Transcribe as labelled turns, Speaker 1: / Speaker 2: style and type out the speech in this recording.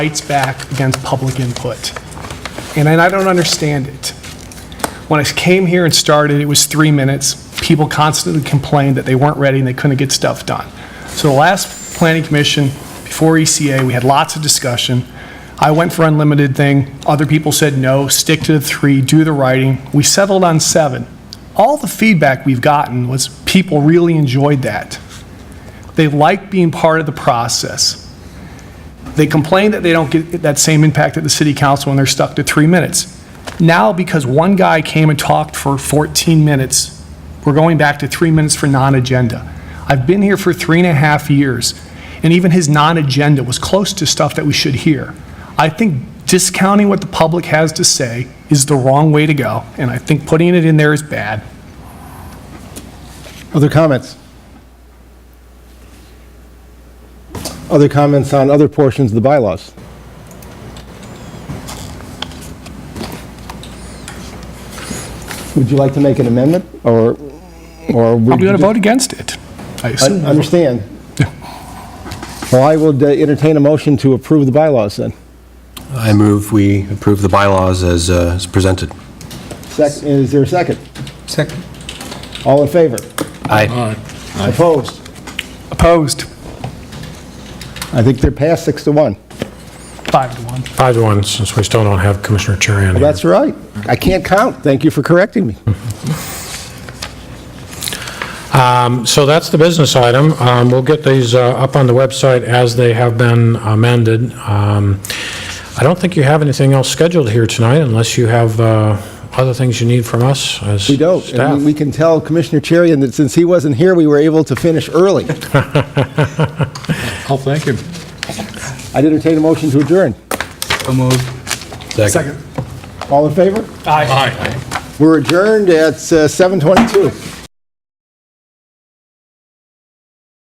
Speaker 1: fights back against public input. And I I don't understand it. When I came here and started, it was three minutes. People constantly complained that they weren't ready and they couldn't get stuff done. So the last planning commission, before ECA, we had lots of discussion. I went for unlimited thing. Other people said, no, stick to the three, do the writing. We settled on seven. All the feedback we've gotten was people really enjoyed that. They like being part of the process. They complain that they don't get that same impact at the city council when they're stuck to three minutes. Now, because one guy came and talked for 14 minutes, we're going back to three minutes for non-agenda. I've been here for three and a half years, and even his non-agenda was close to stuff that we should hear. I think discounting what the public has to say is the wrong way to go, and I think putting it in there is bad.
Speaker 2: Other comments? Other comments on other portions of the bylaws? Would you like to make an amendment, or, or?
Speaker 1: I'm going to vote against it. I assume.
Speaker 2: Understand. Well, I would uh, entertain a motion to approve the bylaws then.
Speaker 3: I move we approve the bylaws as uh, as presented.
Speaker 2: Second, is there a second?
Speaker 4: Second.
Speaker 2: All in favor?
Speaker 3: Aye.
Speaker 2: Opposed?
Speaker 1: Opposed?
Speaker 2: I think they're passed six to one.
Speaker 1: Five to one.
Speaker 5: Five to one, since we still don't have Commissioner Cherian here.
Speaker 2: That's right. I can't count. Thank you for correcting me.
Speaker 5: Um, So that's the business item. Um, We'll get these uh, up on the website as they have been amended. Um, I don't think you have anything else scheduled here tonight unless you have uh, other things you need from us as
Speaker 2: We don't.
Speaker 5: staff.
Speaker 2: And we can tell Commissioner Cherian that since he wasn't here, we were able to finish early.
Speaker 4: I'll thank him.
Speaker 2: I'd entertain a motion to adjourn.
Speaker 4: So moved.
Speaker 2: All in favor?
Speaker 1: Aye.
Speaker 2: We're adjourned at uh, 7:22.